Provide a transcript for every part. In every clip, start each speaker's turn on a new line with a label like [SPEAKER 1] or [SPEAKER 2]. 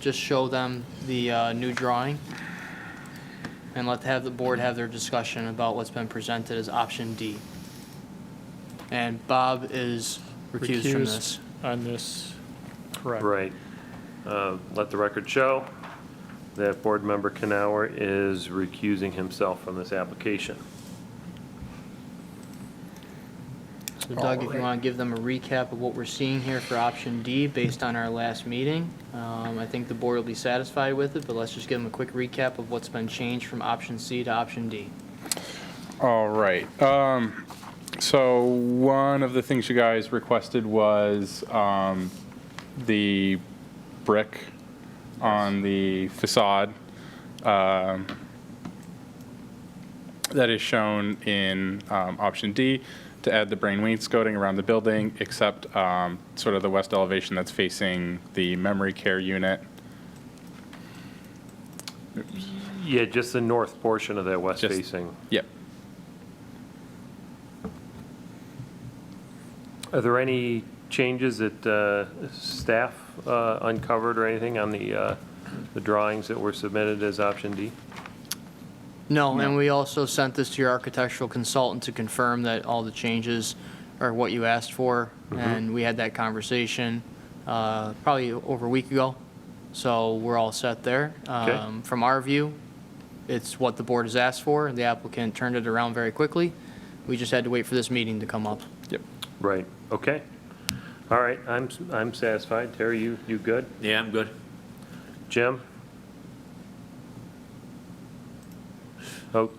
[SPEAKER 1] just show them the uh, new drawing and let, have the board have their discussion about what's been presented as option D. And Bob is recused from
[SPEAKER 2] Recused.
[SPEAKER 1] this.
[SPEAKER 2] on this, correct?
[SPEAKER 3] Right. Uh, Let the record show that Board Member Canower is recusing himself from this application.
[SPEAKER 1] So Doug, if you want to give them a recap of what we're seeing here for option D based on our last meeting, um, I think the board will be satisfied with it, but let's just give them a quick recap of what's been changed from option C to option D.
[SPEAKER 4] All right. Um, so one of the things you guys requested was um, the brick on the facade um, that is shown in um, option D to add the brain wainscoting around the building, except um, sort of the west elevation that's facing the memory care unit.
[SPEAKER 3] Yeah, just the north portion of that west
[SPEAKER 4] Just-
[SPEAKER 3] facing.
[SPEAKER 4] Yep.
[SPEAKER 3] Are there any changes that uh, staff uh, uncovered or anything on the, uh, the drawings that were submitted as option D?
[SPEAKER 1] No, and
[SPEAKER 4] No.
[SPEAKER 1] we also sent this to your architectural consultant to confirm that all the changes are what you asked for, and we had that conversation uh, probably over a week ago, so we're all set there.
[SPEAKER 3] Okay.
[SPEAKER 1] Um, From our view, it's what the board has asked for, the applicant turned it around very quickly, we just had to wait for this meeting to come up.
[SPEAKER 4] Yep.
[SPEAKER 3] Right, okay. All right, I'm, I'm satisfied. Terry, you, you good?
[SPEAKER 5] Yeah, I'm good.
[SPEAKER 3] Jim? Oh,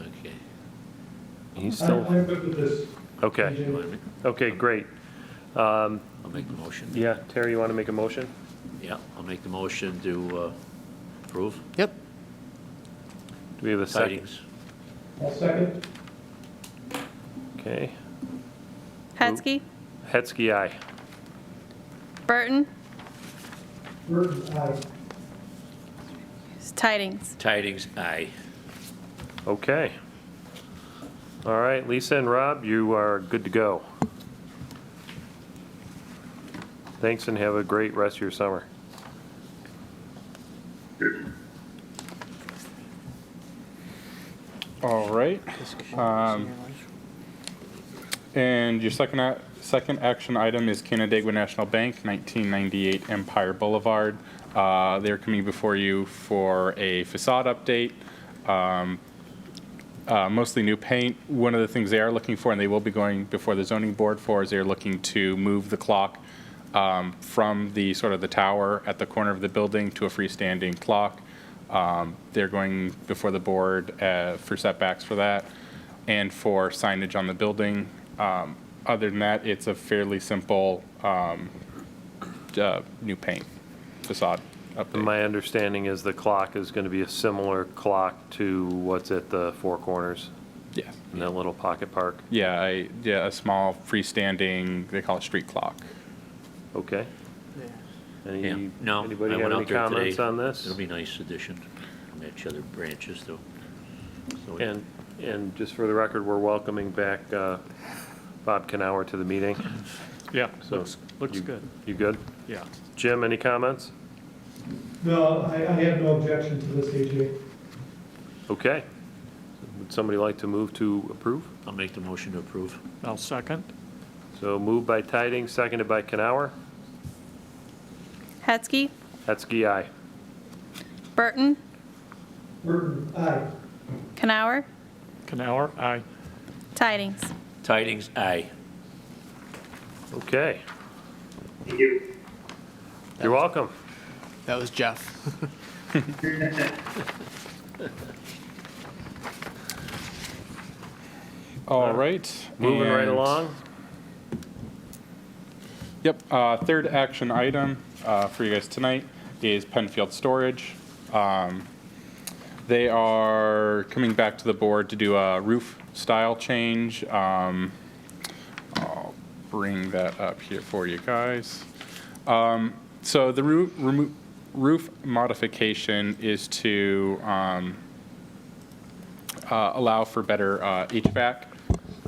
[SPEAKER 5] Okay.
[SPEAKER 3] he's
[SPEAKER 6] I'm
[SPEAKER 3] still,
[SPEAKER 6] I'm good with this.
[SPEAKER 3] okay,
[SPEAKER 5] You want me-
[SPEAKER 3] okay, great.
[SPEAKER 5] I'll make the motion.
[SPEAKER 3] Yeah, Terry, you want to make a motion?
[SPEAKER 5] Yeah, I'll make the motion to uh, approve.
[SPEAKER 1] Yep,
[SPEAKER 3] Do we have a second?
[SPEAKER 5] Tidings.
[SPEAKER 6] I'll second.
[SPEAKER 3] Okay.
[SPEAKER 7] Hetzke,
[SPEAKER 3] Hetzke, aye.
[SPEAKER 7] Burton,
[SPEAKER 6] Burton, aye.
[SPEAKER 7] Tidings.
[SPEAKER 5] Tidings, aye.
[SPEAKER 3] Okay. All right, Lisa and Rob, you are good to go. Thanks and have a great rest of your summer.
[SPEAKER 4] All right. Um, And your second, a- second action item is Canandaigua National Bank, 1998 Empire Boulevard. Uh, They're coming before you for a facade update, um, uh, mostly new paint. One of the things they are looking for, and they will be going before the zoning board for, is they're looking to move the clock um, from the, sort of the tower at the corner of the building to a freestanding clock. Um, They're going before the board uh, for setbacks for that and for signage on the building. Um, Other than that, it's a fairly simple um, uh, new paint facade update.
[SPEAKER 3] My understanding is the clock is going to be a similar clock to what's at the Four Corners
[SPEAKER 4] Yeah,
[SPEAKER 3] in that little pocket park.
[SPEAKER 4] yeah, I- yeah, a small freestanding, they call it street clock.
[SPEAKER 3] Okay? Any-
[SPEAKER 5] Yeah. No, I
[SPEAKER 3] Anybody have
[SPEAKER 5] went
[SPEAKER 3] any
[SPEAKER 5] out there today.
[SPEAKER 3] comments on this?
[SPEAKER 5] It'll be a nice addition. Match other branches though. So we-
[SPEAKER 3] And, and just for the record, we're welcoming back uh, Bob Canower to the meeting.
[SPEAKER 2] Yeah,
[SPEAKER 3] So
[SPEAKER 2] looks, looks
[SPEAKER 3] you-
[SPEAKER 2] good,
[SPEAKER 3] You good?
[SPEAKER 2] yeah.
[SPEAKER 3] Jim, any comments?
[SPEAKER 6] No, I, I have no objection to this, AJ.
[SPEAKER 3] Okay. Would somebody like to move to approve?
[SPEAKER 5] I'll make the motion to approve.
[SPEAKER 2] I'll second.
[SPEAKER 3] So moved by Tidings, seconded by Canower.
[SPEAKER 7] Hetzke,
[SPEAKER 3] Hetzke, aye.
[SPEAKER 7] Burton,
[SPEAKER 6] Burton, aye.
[SPEAKER 7] Canower,
[SPEAKER 2] Canower, aye.
[SPEAKER 7] Tidings.
[SPEAKER 5] Tidings, aye.
[SPEAKER 3] Okay. Thank you. You're welcome.
[SPEAKER 1] that was Jeff.
[SPEAKER 4] All right.
[SPEAKER 3] Moving right
[SPEAKER 4] and-
[SPEAKER 3] along.
[SPEAKER 4] Yep, uh, third action item uh, for you guys tonight is Penfield Storage. Um, They are coming back to the board to do a roof style change. Um, I'll bring that up here for you guys. Um, So the roo- remo- roof modification is to um, uh, allow for better uh, HVAC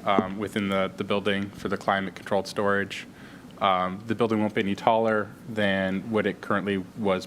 [SPEAKER 4] um, within the, the building for the climate-controlled storage. Um, The building won't be any taller than what it currently was